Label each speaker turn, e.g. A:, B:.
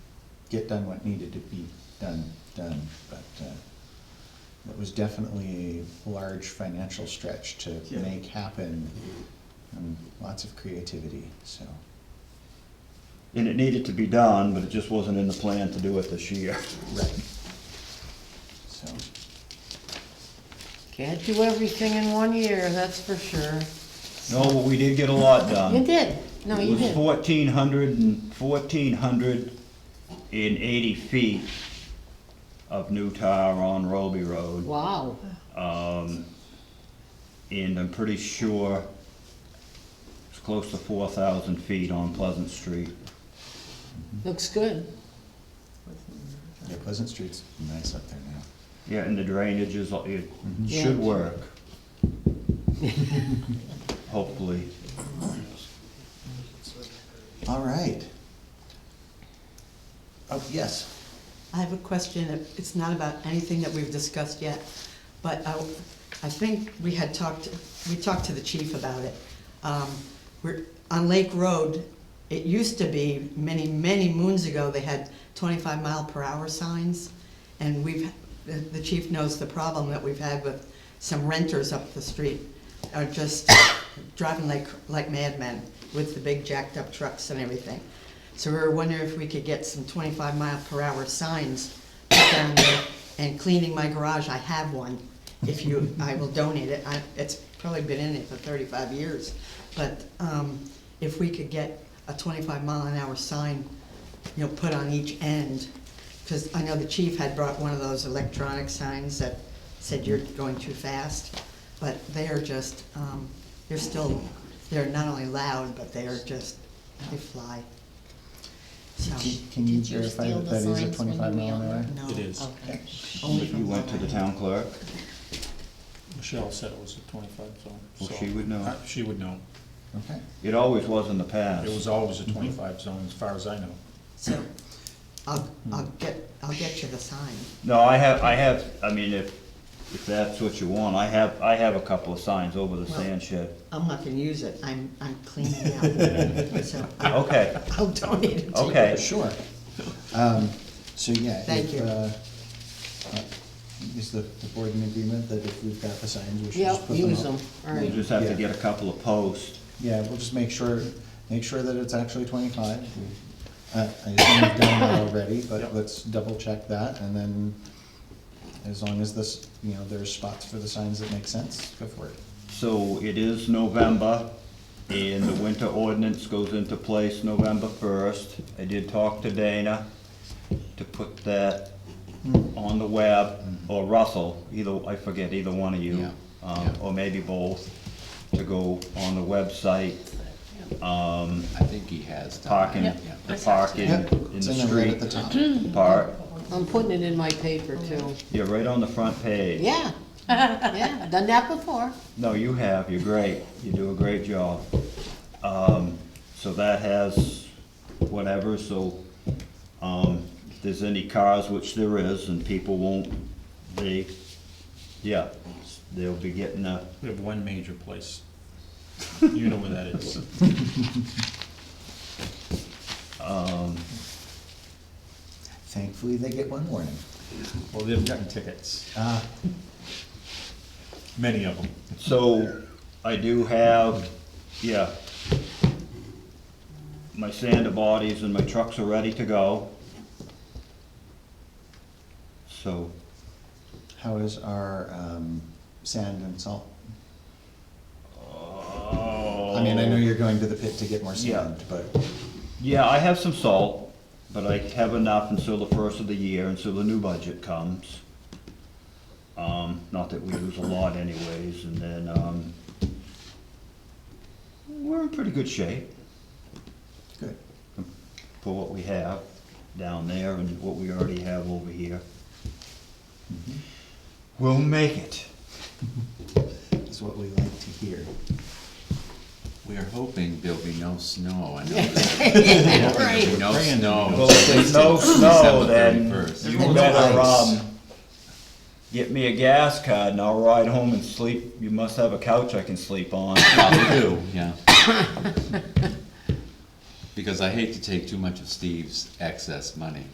A: get done what needed to be done, done, but, uh, it was definitely a large financial stretch to
B: Yeah.
A: make happen, and lots of creativity, so.
C: And it needed to be done, but it just wasn't in the plan to do it this year.
A: Right. So,
D: Can't do everything in one year, that's for sure.
C: No, but we did get a lot
A: Um,
C: done.
D: You did, no, you
C: It was
D: did.
C: fourteen hundred and, fourteen hundred and eighty feet of new tire on Roby Road.
D: Wow,
C: Um, and I'm pretty sure it's close to four thousand feet on Pleasant Street.
D: looks good.
A: yeah, Pleasant Street's nice up there now.
C: Yeah, and the drainage is, it
D: Mm-hmm. Yeah.
C: should work. Hopefully.
A: All right. Oh, yes.
E: I have a question, it's not about anything that we've discussed yet, but I, I think we had talked, we talked to the chief about it. Um, We're, on Lake Road, it used to be, many, many moons ago, they had twenty-five mile per hour signs, and we've, the- the chief knows the problem that we've had with some renters up the street are just driving like, like madmen with the big jacked up trucks and everything. So we were wondering if we could get some twenty-five mile per hour signs put down there. And cleaning my garage, I have one. If you, I will donate it. I, it's probably been in it for thirty-five years. But, um, if we could get a twenty-five mile an hour sign, you know, put on each end. Cause I know the chief had brought one of those electronic signs that said you're going too fast. But they are just, um, they're still, they're not only loud, but they are just, they fly. So,
A: Can- Can you
F: Oh, Did you
A: verify
F: steal
A: that
F: the
A: that is a
F: signs when you
A: twenty-five mile
F: mailed
A: an hour?
E: no.
B: It is.
F: Okay.
E: Only
C: You
E: from
C: went to the
E: Lorraine.
C: town clerk,
B: Michelle said it was a twenty-five zone.
C: well,
B: so-
C: she would know.
B: Uh, She would know.
A: Okay.
C: It always was in the past.
B: It was always
C: Mm-hmm.
B: a twenty-five zone, as far as I know.
E: So, I'll, I'll get, I'll get you the sign.
C: No, I have, I have, I mean, if, if that's what you want, I have, I have a couple of signs over the sand shed.
E: I'm not gonna use it, I'm, I'm cleaning it out, so I'll,
C: Okay,
E: I'll donate it to you.
C: okay.
A: Sure. Um, so yeah.
E: Thank
A: if,
E: you.
A: uh, uh, Is the, the board in agreement that if we've got the signs, we should just put
D: Yep,
A: them up?
D: use them, all
C: We'll
D: right.
C: just have to get a couple of posts.
A: Yeah, we'll just make sure, make sure that it's actually twenty-five. Uh, I assume we've done that already, but
B: Yep.
A: let's double check that and then as long as this, you know, there's spots for the signs that make sense, go for it.
C: So it is November, and the winter ordinance goes into place November first. I did talk to Dana to put that
A: Hmm.
C: on the web, or Russell, either, I forget, either one of you, um, or maybe both, to go on the website, um,
G: I think he has. done
C: parking,
G: that,
C: the parking
A: Yep,
C: in
A: it's
C: the
A: in the red at
C: street
A: the top.
C: part.
D: I'm putting it in my paper too.
C: Yeah, right on the front page.
D: Yeah, yeah, I've done that before.
C: No, you have, you're great, you do a great job. Um, so that has whatever, so, um, if there's any cars, which there is, and people won't, they, yeah, they'll be getting a,
B: We have one major place. You know where that is.
A: Thankfully, they get one warning.
B: Well, they've gotten tickets,
C: Uh.
A: Ah,
B: many of them.
C: So, I do have, yeah, my sander bodies and my trucks are ready to go. So,
A: how is our, um, sand and salt?
C: oh.
A: I mean, I know you're going to the pit to get more
C: Yeah.
A: sand, but,
C: Yeah, I have some salt, but I have enough until the first of the year, until the new budget comes. Um, not that we lose a lot anyways, and then, um, we're in pretty good shape
A: good.
C: for what we have down there and what we already have over here. We'll make it.
A: It's what we like to hear.
G: We are hoping there'll be no snow. I know there's
D: Right.
G: no
B: Praying.
G: snow.
C: Well, if there's no snow,
G: December
C: then
G: 31st.
C: you
A: And no
C: better,
A: lights.
C: um, get me a gas card and I'll ride home and sleep. You must have a couch I can sleep on.
G: Probably do, yeah. Because I hate to take too much of Steve's excess money.